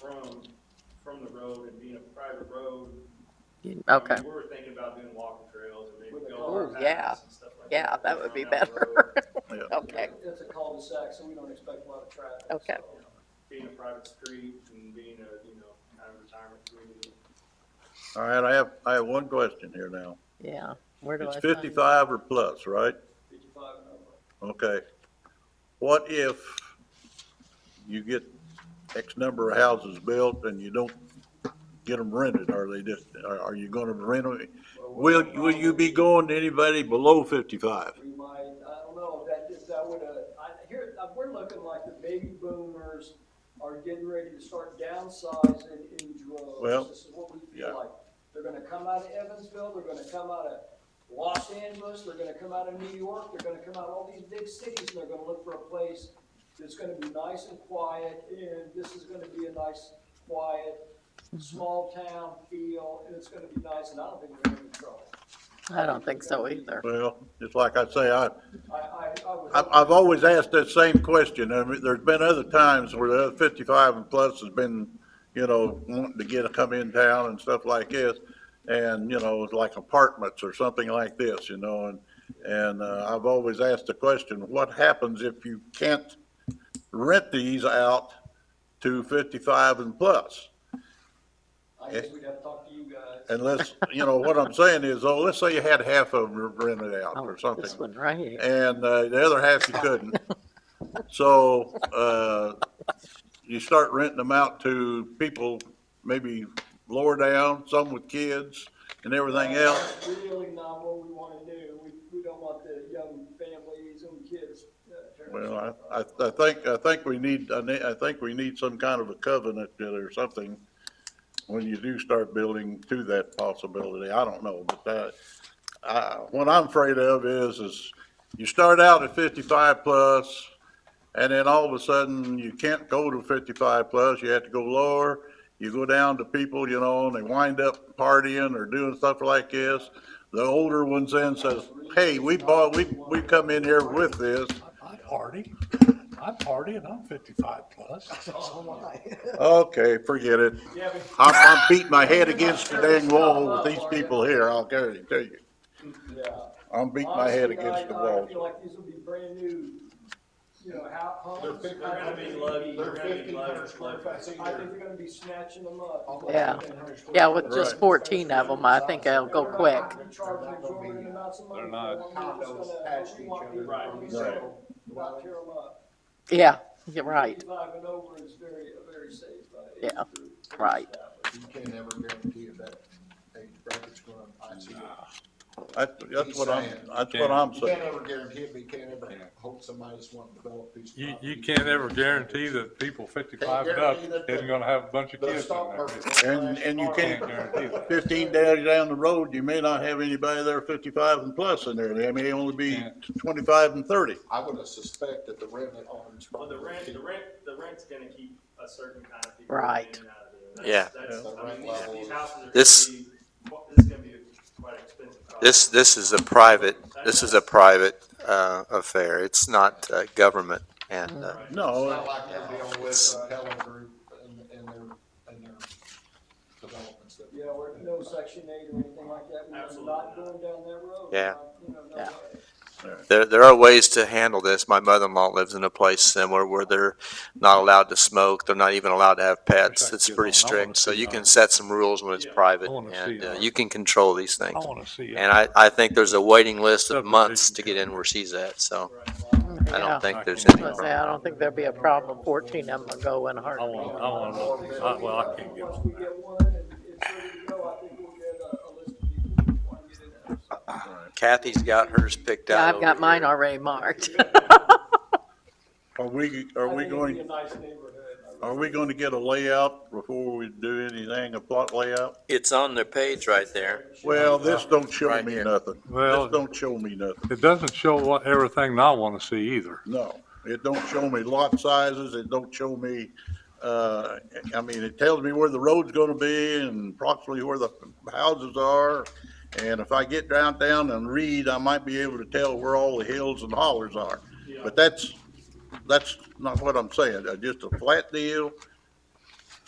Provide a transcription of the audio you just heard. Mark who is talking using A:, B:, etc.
A: from, from the road and being a private road. I mean,
B: Okay,
A: We were thinking about doing walking trails and maybe
C: With a
A: go
B: car.
A: on
B: Ooh, yeah.
A: paths and stuff like that.
B: yeah, that
A: go
B: would be
A: down that
B: better.
A: road,
B: Okay,
C: It's a cul-de-sac, so we don't expect a lot of traffic.
B: Okay.
C: so.
A: Being a private street and being a, you know, kind of retirement community.
D: All right, I have, I have one question here now.
B: yeah. Where do I?
D: It's
B: sign?
D: fifty-five or plus, right?
C: Fifty-five and over.
D: Okay. What if you get X number of houses built and you don't get them rented? Are they just, are, are you gonna rent them? Will, will you be going to anybody below fifty-five?
C: We might, I don't know, that is, that would, uh, I, here, uh, we're looking like the baby boomers are getting ready to start downsizing in droves.
D: Well,
C: This is what we
D: yeah.
C: feel like. They're gonna come out of Evansville, they're gonna come out of Los Angeles, they're gonna come out of New York, they're gonna come out of all these big cities, and they're gonna look for a place that's gonna be nice and quiet, and this is gonna be a nice, quiet, small town feel, and it's gonna be nice, and I don't think we're gonna be in trouble.
B: I don't think so either.
D: Well, just like I say, I,
C: I, I, I would.
D: I've, I've always asked that same question. I mean, there's been other times where the fifty-five and plus has been, you know, wanting to get, come in town and stuff like this. And, you know, like apartments or something like this, you know, and, and, uh, I've always asked the question, what happens if you can't rent these out to fifty-five and plus?
C: I guess we'd have to talk to you guys.
D: Unless, you know, what I'm saying is, oh, let's say you had half of them rented out
B: Oh,
D: or something
B: This one right here.
D: and uh, the other half you couldn't. So uh, you start renting them out to people maybe lower down, some with kids and everything else.
C: That's Really not what we wanna do. We, we don't want the young families and kids. uh, turning
D: Well,
C: up.
D: I- I, I think, I think we need, I ne- I think we need some kind of a covenant or something when you do start building to that possibility. I don't know, but that, I, what I'm afraid of is, is you start out at fifty-five plus, and then all of a sudden, you can't go to fifty-five plus, you have to go lower. You go down to people, you know, and they wind up partying or doing stuff like this. The older ones then says, hey, we bought, we, we come in here with this.
E: I party. I party and I'm fifty-five plus.
C: Oh,
D: Okay, forget it.
C: Yeah, but
D: I'm, I'm beating my head against the dang wall with these people here, I'll guarantee you.
C: Yeah.
D: I'm beating my head
C: Honestly, I-
D: against the
C: I
D: wall.
C: feel like these will be brand new, you know, how, homes.
A: They're gonna be lucky, they're gonna be lucky, lucky.
C: I think they're gonna be snatching them up.
B: Yeah. Yeah, with just
D: Right.
B: fourteen of them, I think uh, it'll go quick.
F: They're not
A: Right.
C: Not tear them up.
B: Yeah, you're right.
C: Fifty-five and over is very, a very safe. uh, age
B: Yeah,
C: group.
B: right.
G: You can never guarantee if that age bracket's gonna, I see. it.
D: That's, that's what I'm, that's what I'm
G: You can't
D: saying.
G: ever guarantee it, but you can't ever hope somebody's wanting to develop these.
F: You, you
G: properties.
F: can't ever guarantee that people fifty-five and up
G: Can't guarantee that
F: isn't gonna have a bunch of
G: The
F: kids in
G: stock
F: there.
G: market.
D: And, and you
F: Can't
D: can't,
F: guarantee that.
D: fifteen days down the road, you may not have anybody there fifty-five and plus in there. They may only be twenty-five and thirty.
G: I would suspect that the rent on.
A: Well, the rent, the rent, the rent's gonna keep a certain kind of people.
B: Right.
A: in and out of there. That's-
G: Yeah.
A: that's- I mean, these, these houses are gonna be,
H: This-
A: this is gonna be quite expensive. project.
H: This, this is a private, this is a private uh, affair. It's not uh, government and, uh,
A: Right.
G: It's
D: No,
G: not like they're dealing with uh, Helen Group and, and their, and their developments that.
C: Yeah, we're, no section eight or anything like that, we're
A: Absolutely not.
C: not going down that road. Uh,
H: Yeah.
C: You know, no
B: Yeah.
C: way.
H: there, there are ways to handle this. My mother-in-law lives in a place similar where they're not allowed to smoke. They're not even allowed to have pets. It's pretty strict. So you can set some rules when it's private and uh, you can control these
E: I
H: things.
E: wanna see it.
H: And I, I think there's a waiting list of months to get in where she's at, so I
B: Yeah.
H: don't think there's
B: I was
H: any.
B: gonna say, I don't think there'll be a problem. Fourteen of them will go in a
E: I
B: heartbeat.
E: wanna, I wanna, I- well, I can't get
C: Once
E: on
C: we
E: there.
C: get one and it's ready to go, I think we'll get a, a list of people who want to get in there. So,
H: Kathy's got hers picked
B: Yeah,
H: out
B: I've got
H: over
B: mine
H: here.
B: already marked.
D: are we, are
C: I
D: we
C: think it'd be a
D: going,
C: nice neighborhood. I
D: are
C: really
D: we going to get a layout before we do anything, a plot layout?
H: It's on their page right there.
D: Well, this don't show
H: Right
D: me
H: here.
D: nothing. This
F: Well,
D: don't show me nothing.
F: it doesn't show what, everything I wanna see either.
D: No, it don't show me lot sizes, it don't show me, uh, I mean, it tells me where the road's gonna be and approximately where the houses are. And if I get down, down and read, I might be able to tell where all the hills and hollers are. But that's, that's not what I'm saying, Uh, just a flat deal,